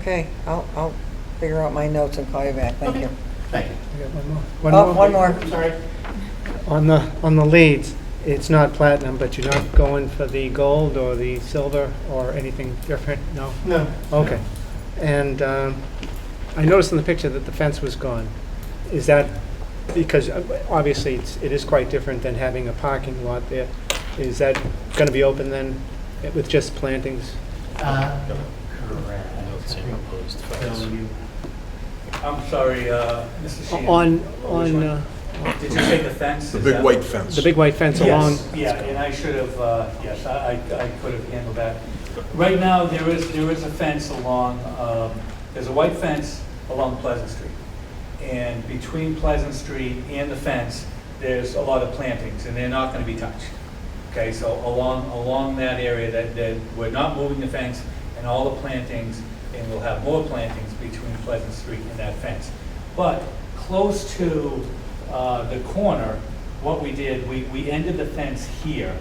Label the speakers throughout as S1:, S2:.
S1: Okay, I'll, I'll figure out my notes and call you back, thank you.
S2: Thank you.
S3: I got one more.
S1: Oh, one more.
S2: I'm sorry.
S3: On the, on the leads, it's not platinum, but you're not going for the gold or the silver or anything different? No?
S2: No.
S3: Okay. And um, I noticed in the picture that the fence was gone. Is that, because uh, obviously it's, it is quite different than having a parking lot there. Is that going to be open then eh, with just plantings?
S2: Uh,
S4: No, it's
S2: Correct.
S4: in proposed
S2: So
S4: files.
S2: you-
S5: I'm sorry, uh, Mr. Sheehan.
S3: On,
S5: Which
S3: on
S5: one?
S3: uh,
S5: Did you say the fence?
S6: The
S5: Is
S6: big
S5: that-
S6: white fence.
S3: the big white fence along?
S5: Yes, yeah, and I should have, uh, yes, I, I I could have handled that. Right now, there is, there is a fence along, um, there's a white fence along Pleasant Street. And between Pleasant Street and the fence, there's a lot of plantings, and they're not gonna be touched. Okay, so along, along that area, that, that, we're not moving the fence and all the plantings, and we'll have more plantings between Pleasant Street and that fence. But close to uh, the corner, what we did, we, we ended the fence here,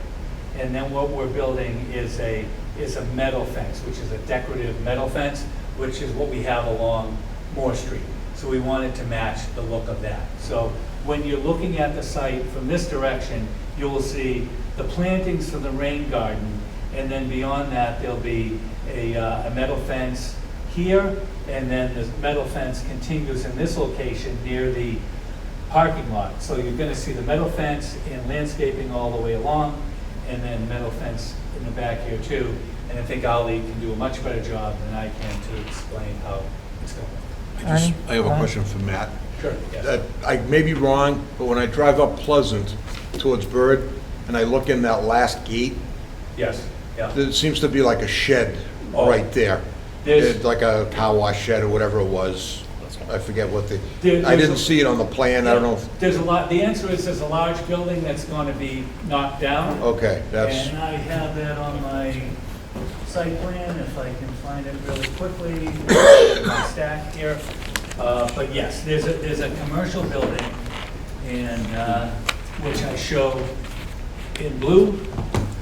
S5: and then what we're building is a, is a metal fence, which is a decorative metal fence, which is what we have along Moore Street. So we wanted to match the look of that. So when you're looking at the site from this direction, you will see the plantings for the rain garden, and then beyond that, there'll be a, uh, a metal fence here, and then the metal fence continues in this location near the parking lot. So you're gonna see the metal fence and landscaping all the way along, and then metal fence in the back here too. And I think Ali can do a much better job than I can to explain how it's going.
S6: I just- I have
S5: Uh-huh.
S6: a question for Matt.
S5: Sure.
S6: Uh, I may be wrong, but when I drive up Pleasant towards Bird, and I look in that last gate,
S5: Yes, yeah.
S6: there seems to be like a shed
S5: Oh.
S6: right there.
S5: There's-
S6: It's Like a car wash shed or whatever it was. I forget what the,
S5: There-
S6: I
S5: there's
S6: didn't
S5: a-
S6: see it on the plan, I don't know. if-
S5: There's a lot, the answer is there's a large building that's gonna be knocked down.
S6: Okay, that's,
S5: And I have that on my site plan, if I can find it really quickly, my stack here. Uh, But yes, there's a, there's a commercial building, and, uh, which I show in blue,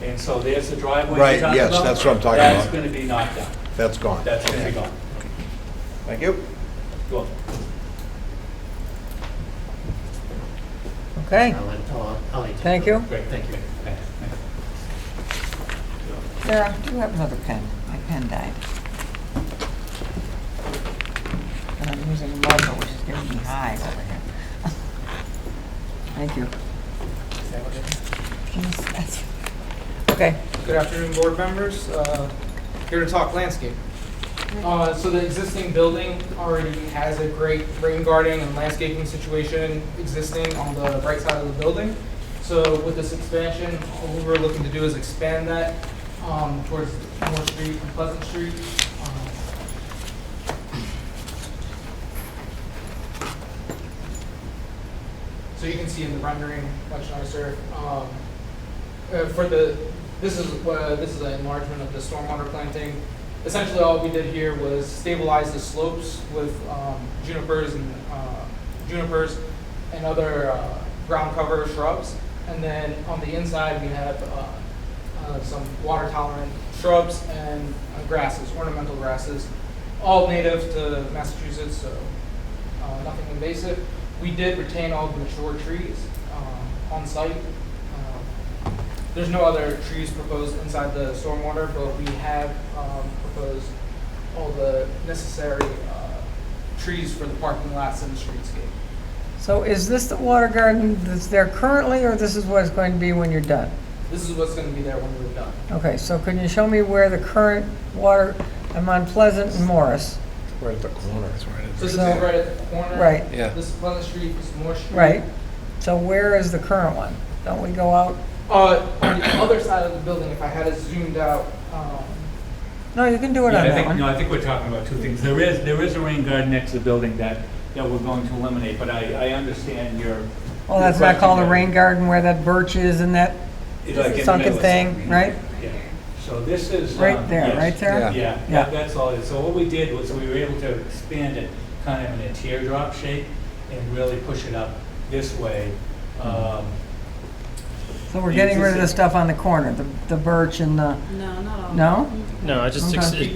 S5: and so there's the driveway
S6: Right,
S5: you talked
S6: yes,
S5: about.
S6: that's what I'm talking
S5: That's
S6: about.
S5: gonna be knocked down,
S6: that's gone.
S5: that's gonna be gone.
S6: Thank you.
S5: Go.
S1: Okay,
S2: I'll let, I'll, I'll let you.
S1: thank you.
S5: Great, thank you.
S1: Sarah, do you have another pen? My pen died. And I'm using a marker, which is giving me hives over here. Thank you. Yes, that's- Okay,
S7: Good afternoon, board members. Uh, Here to talk landscape. Uh, So the existing building already has a great rain garden and landscaping situation existing on the right side of the building. So with this expansion, all we were looking to do is expand that um, towards Moore Street and Pleasant Street. Um, So you can see in the rendering much nicer. um, uh, for the, this is, uh, this is an enlargement of the stormwater planting. Essentially, all we did here was stabilize the slopes with um, junipers and, uh, junipers and other uh, ground cover shrubs. And then on the inside, we have uh, uh, some water tolerant shrubs and uh, grasses, ornamental grasses, all native to Massachusetts, so uh, nothing invasive. We did retain all the mature trees um, on site. Um, there's no other trees proposed inside the stormwater, but we have um, proposed all the necessary uh, trees for the parking lots and the streetscape.
S1: so is this the water garden that's there currently, or this is what it's going to be when you're done?
S7: This is what's going to be there when we're done.
S1: Okay, so can you show me where the current water, I'm on Pleasant and Morris,
S6: Right at the corner.
S7: So this is
S1: So-
S7: right at the corner.
S1: Right.
S6: Yeah.
S7: This is Pleasant Street, this is Moore Street.
S1: right? So where is the current one? Don't we go out?
S7: Uh, On the other side of the building, if I had it zoomed out, um,
S1: No, you can do it
S5: Yeah,
S1: on
S5: I
S1: that
S5: think,
S1: one.
S5: no, I think we're talking about two things. There is, there is a rain garden next to the building that, that we're going to eliminate, but I, I understand your.
S1: Well, Oh, that's
S5: your
S1: not called a
S5: question
S1: rain
S5: there.
S1: garden where that birch is and that
S5: It's like in the middle
S1: sunken
S5: of
S1: thing,
S5: something.
S1: right?
S5: Yeah. So this is.
S1: Right
S5: um,
S1: there,
S5: yes.
S1: right
S6: Yeah.
S1: there?
S5: Yeah,
S1: Yeah.
S5: that- that's all it is. So what we did was we were able to expand it kind of in a teardrop shape and really push it up this way. Um,
S1: So we're getting rid of the stuff on the corner, the the birch and the,
S8: No, not all. Mm-hmm.
S1: no?
S4: No, I just, ex-
S1: Okay.